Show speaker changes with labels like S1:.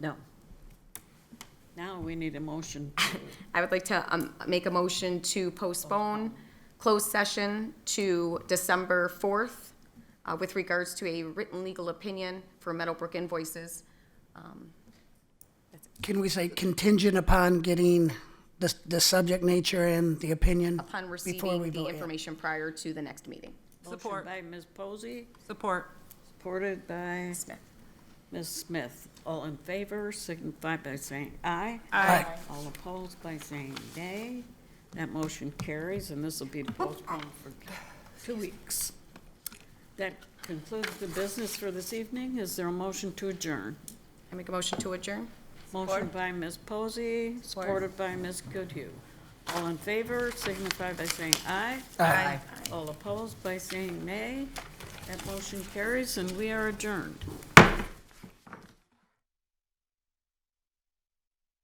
S1: No. Now we need a motion.
S2: I would like to um, make a motion to postpone closed session to December 4th uh, with regards to a written legal opinion for Meadowbrook invoices.
S3: Can we say contingent upon getting the, the subject nature and the opinion?
S2: upon
S3: before
S2: receiving
S3: we
S2: the
S3: vote, yeah.
S2: information prior to the next meeting.
S4: Support.
S1: Motion by Ms. Posey,
S4: Support.
S1: supported by
S2: Smith.
S1: Ms. Smith. All in favor, signify by saying aye.
S3: Aye.
S1: All opposed by saying nay. That motion carries, and this will be postponed for two weeks. That concludes the business for this evening. Is there a motion to adjourn?
S2: I make a motion to adjourn?
S1: Motion by Ms. Posey, supported by Ms. Goodhue. All in favor, signify by saying aye.
S3: Aye.
S1: All opposed by saying nay. That motion carries, and we are adjourned.